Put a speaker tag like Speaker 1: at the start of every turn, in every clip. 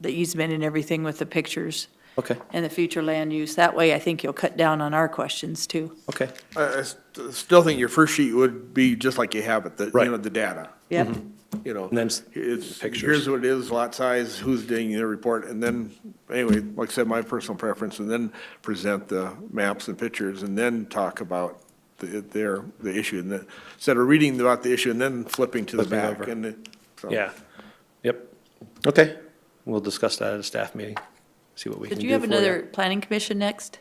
Speaker 1: the easement and everything with the pictures
Speaker 2: Okay,
Speaker 1: and the future land use. That way, I think you'll cut down on our questions too.
Speaker 2: okay.
Speaker 3: I, I st- still think your first sheet would be just like you have it, the,
Speaker 2: Right.
Speaker 3: you know, the data,
Speaker 1: Yep,
Speaker 2: Mm-hmm.
Speaker 3: you know.
Speaker 2: And then s-
Speaker 3: It's,
Speaker 2: pictures.
Speaker 3: here's what it is, lot size, who's doing the report, and then, anyway, like I said, my personal preference, and then present the maps and pictures, and then talk about the, their, the issue, and then, instead of reading about the issue and then flipping to the
Speaker 2: Flipping
Speaker 3: back,
Speaker 2: over.
Speaker 3: and, it- so.
Speaker 2: Yeah, yep. Okay, we'll discuss that at a staff meeting, see what we can
Speaker 1: Did
Speaker 2: do for
Speaker 1: you have another planning commission next?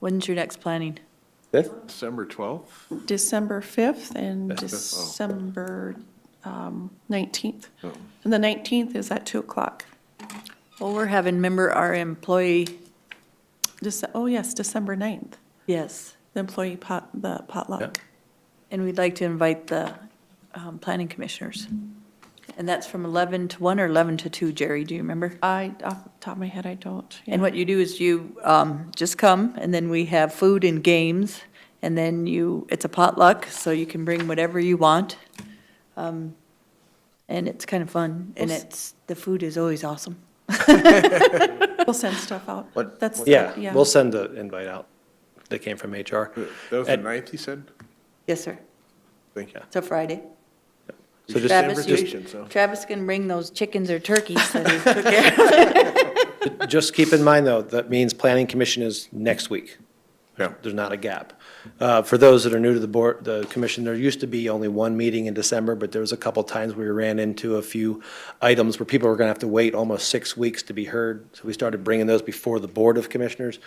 Speaker 1: When's your next planning?
Speaker 2: Fifth?
Speaker 3: December twelfth?
Speaker 4: December 5th and
Speaker 2: That's
Speaker 3: fifth, oh.
Speaker 4: December um, 19th.
Speaker 3: Oh.
Speaker 4: And the 19th is at 2 o'clock.
Speaker 1: Well, we're having member our employee,
Speaker 4: Dece- Oh, yes, December 9th,
Speaker 1: yes,
Speaker 4: the employee pot, the potluck.
Speaker 1: and we'd like to invite the um, planning commissioners. And that's from 11 to 1 or 11 to 2, Jerry, do you remember?
Speaker 4: I, off the top of my head, I don't.
Speaker 1: And
Speaker 4: yeah.
Speaker 1: what you do is you um, just come, and then we have food and games, and then you, it's a potluck, so you can bring whatever you want. Um, And it's kind of fun, and it's, the food is always awesome.
Speaker 4: We'll send stuff out.
Speaker 2: What-
Speaker 4: That's,
Speaker 2: Yeah, we'll send the invite out that came from HR.
Speaker 3: That was the
Speaker 2: And-
Speaker 3: ninth, you said?
Speaker 1: Yes, sir.
Speaker 3: Thank you.
Speaker 1: It's a Friday.
Speaker 2: So just,
Speaker 1: Travis, you-
Speaker 3: invitation, so.
Speaker 1: Travis can bring those chickens or turkeys that he took care of.
Speaker 2: just keep in mind, though, that means planning commission is next week.
Speaker 3: Yeah.
Speaker 2: There's not a gap. Uh, For those that are new to the board, the commission, there used to be only one meeting in December, but there was a couple times we ran into a few items where people were going to have to wait almost six weeks to be heard. So we started bringing those before the Board of Commissioners.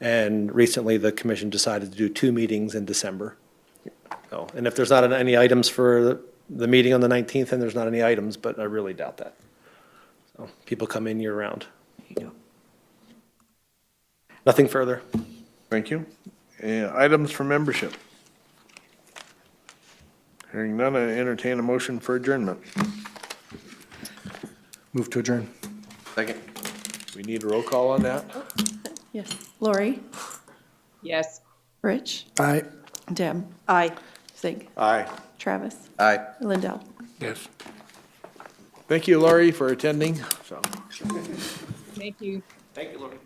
Speaker 2: And recently, the commission decided to do two meetings in December. So, And if there's not any items for the- the meeting on the 19th, then there's not any items, but I really doubt that. So People come in year-round. Nothing further.
Speaker 3: Thank you. Uh, Items for membership. Hearing none, I entertain a motion for adjournment.
Speaker 2: Move to adjourn.
Speaker 3: Second. We need a roll call on that?
Speaker 4: Yes. Lori,
Speaker 5: Yes.
Speaker 4: Rich,
Speaker 3: Aye.
Speaker 4: Deb,
Speaker 1: Aye.
Speaker 4: Zig,
Speaker 3: Aye.
Speaker 4: Travis,
Speaker 3: Aye.
Speaker 4: Lindell.
Speaker 3: Yes. Thank you, Laurie, for attending, so.
Speaker 5: Thank you.
Speaker 3: Thank you, Laurie.